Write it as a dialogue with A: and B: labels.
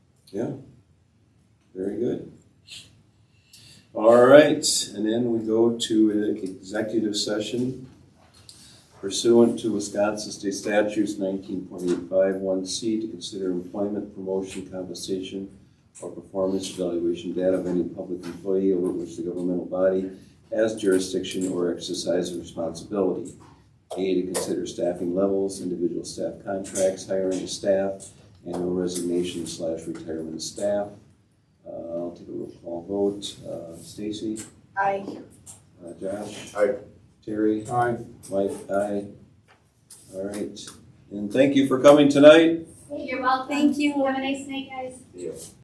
A: Yeah. Very good. All right, and then we go to an executive session pursuant to Wisconsin State Statutes nineteen point eight five one C to consider employment, promotion, compensation, or performance evaluation data of any public employee over which the governmental body has jurisdiction or exercise responsibility. A, to consider staffing levels, individual staff contracts, hiring of staff, annual resignation slash retirement of staff. Uh, I'll take a roll call vote. Uh, Stacy?
B: I
A: Uh, Josh?
C: Aye.
A: Terry?
C: Aye.
A: Mike? Aye. All right. And thank you for coming tonight.
D: You're welcome.
B: Thank you.
D: Have a nice night, guys.